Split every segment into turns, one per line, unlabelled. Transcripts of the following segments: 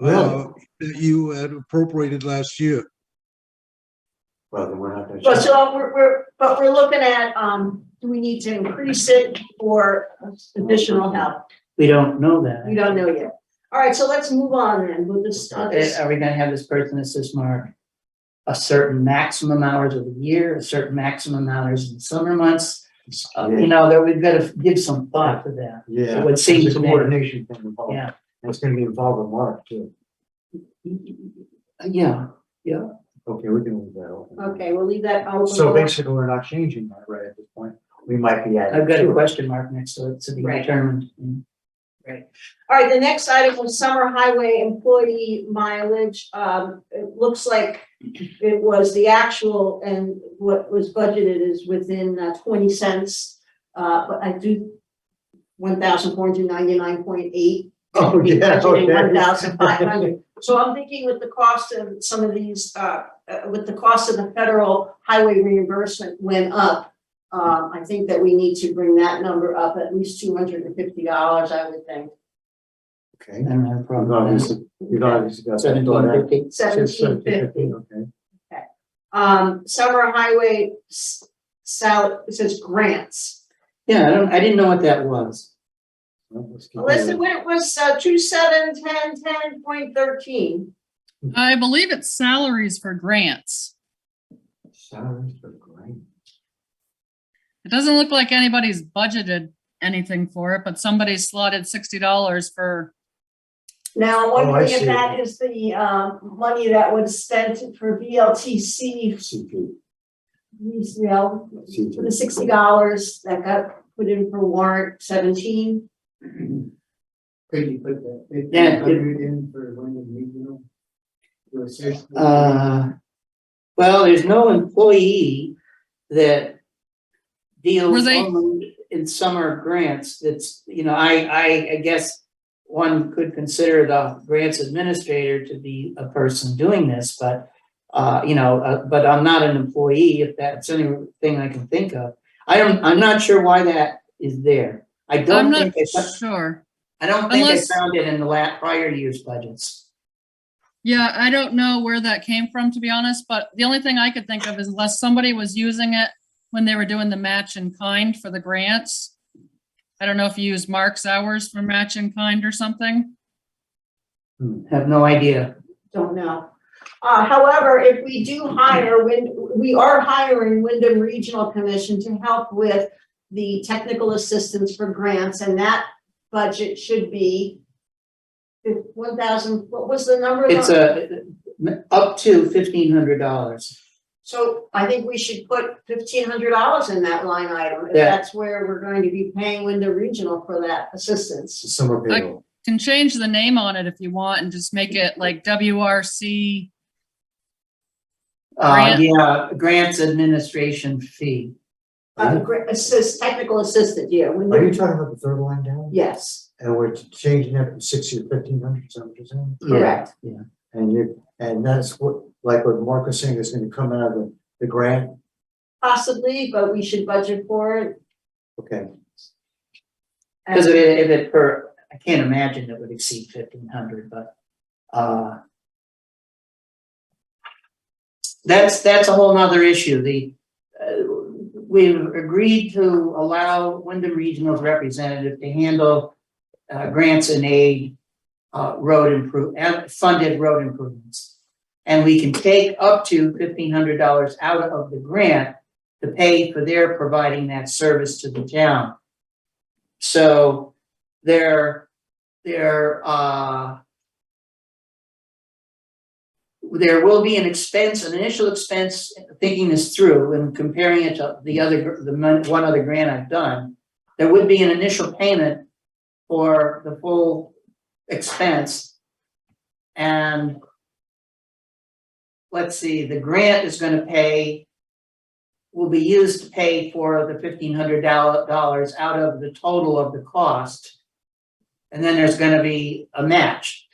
Really?
uh, That you had appropriated last year.
Well, then we're not
But
gonna.
so we're, we're, but we're looking at, um, do we need to increase it or additional help?
We don't know
We
that.
don't know yet. All right, so let's move on then with this, uh,
Eh,
this-
Are we gonna have this person assist Mark? A certain maximum hours of the year, a certain maximum hours in the summer months, Uh, you know, that we've gotta give some thought to that.
Yeah.
It would seem
There's a
to me-
Coordination thing involved.
Yeah.
And It's gonna be involved with Mark too.
Yeah,
Okay, we can leave that open.
okay, we'll leave that out.
So basically, we're not changing that right at this point. We might be adding.
I've got
to
a
it.
question mark next to it to be
Right.
determined.
All right, the next item was summer highway employee mileage. Um, it looks like it was the actual and what was budgeted is within uh, twenty cents. Uh, but I do one thousand four hundred ninety-nine point eight.
Oh, yeah, okay.
One thousand five hundred. So I'm thinking with the cost of some of these, uh, uh, with the cost of the federal highway reimbursement went up. Um, I think that we need to bring that number up at least two hundred and fifty dollars, I would think.
Okay.
I don't have a
You've
problem with that.
obviously, you've obviously got. that
Seventeen
done.
fifty.
Seventeen fifty.
Okay.
Um, summer highway s- sal, it says grants.
Yeah, I don't, I didn't know what that was.
Well, let's keep
Melissa,
it.
when it was, uh, two, seven, ten, ten point thirteen.
I believe it's salaries for grants.
Salaries for grants.
It doesn't look like anybody's budgeted anything for it, but somebody slotted sixty dollars for,
Now, I'm
Oh, I
wondering
see.
if that is the, um, money that was spent for VLTC,
CP,
you know, for the
CP.
sixty dollars that got put in for warrant seventeen.
Could you put that
Yeah,
fifteen
it-
hundred in for Wyndham Regional? To assist with-
Uh, well, there's no employee that
Were
deals
they-
only in summer grants. That's, you know, I, I, I guess one could consider the grants administrator to be a person doing this, but, uh, you know, uh, but I'm not an employee, if that's anything I can think of. I am, I'm not sure why that is there. I
I'm
don't
not
think, I-
sure.
I don't think I
Unless-
found it in the la, prior year's budgets.
Yeah, I don't know where that came from, to be honest, but the only thing I could think of is unless somebody was using it when they were doing the match in kind for the grants. I don't know if you use Mark's hours for match in kind or something.
Have no idea.
don't know. Uh, however, if we do hire, when, we are hiring Wyndham Regional Commission to help with the technical assistance for grants, and that budget should be one thousand, what was the number?
It's a, up to fifteen hundred dollars.
So I think we should put fifteen hundred dollars in that line item, if
Yeah.
that's where we're going to be paying Wyndham Regional for that assistance.
Summer payroll.
Can change the name on it if you want and just make it like WRC.
Uh,
Grant.
yeah, grants administration fee.
Uh, gra- assist, technical assistant, yeah,
Are you
Wyndham,
talking about the third line down?
yes,
And we're changing that from sixty to fifteen hundred, is that what you're saying?
correct,
And you, and that's what, like what Mark was saying, is gonna come out of the, the grant,
possibly, but we should budget for it.
okay,
and-
Because if it, if it per, I can't imagine it would exceed fifteen hundred, but, uh. That's, that's a whole nother issue. The, uh, we've agreed to allow Wyndham Regional's representative to handle. Uh, grants and aid, uh, road improve, and funded road improvements. And we can take up to fifteen hundred dollars out of the grant to pay for their providing that service to the town. So their, their, uh, there will be an expense, an initial expense, thinking this through and comparing it to the other, gr- the mon- one other grant I've done. There would be an initial payment for the full expense. And let's see, the grant is gonna pay will be used to pay for the fifteen hundred dollars out of the total of the cost. And then there's gonna be a match,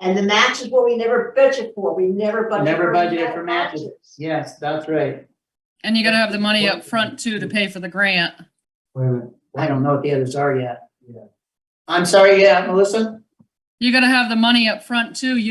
And the match is what we never budget for, we never budget.
Never
for
budgeted
ma-
for matches. yes, that's right,
And you gotta have the money up front too to pay for the grant.
wait a minute.
I don't know what the others are yet. I'm sorry, yeah, Melissa?
You gotta have the money up front too. You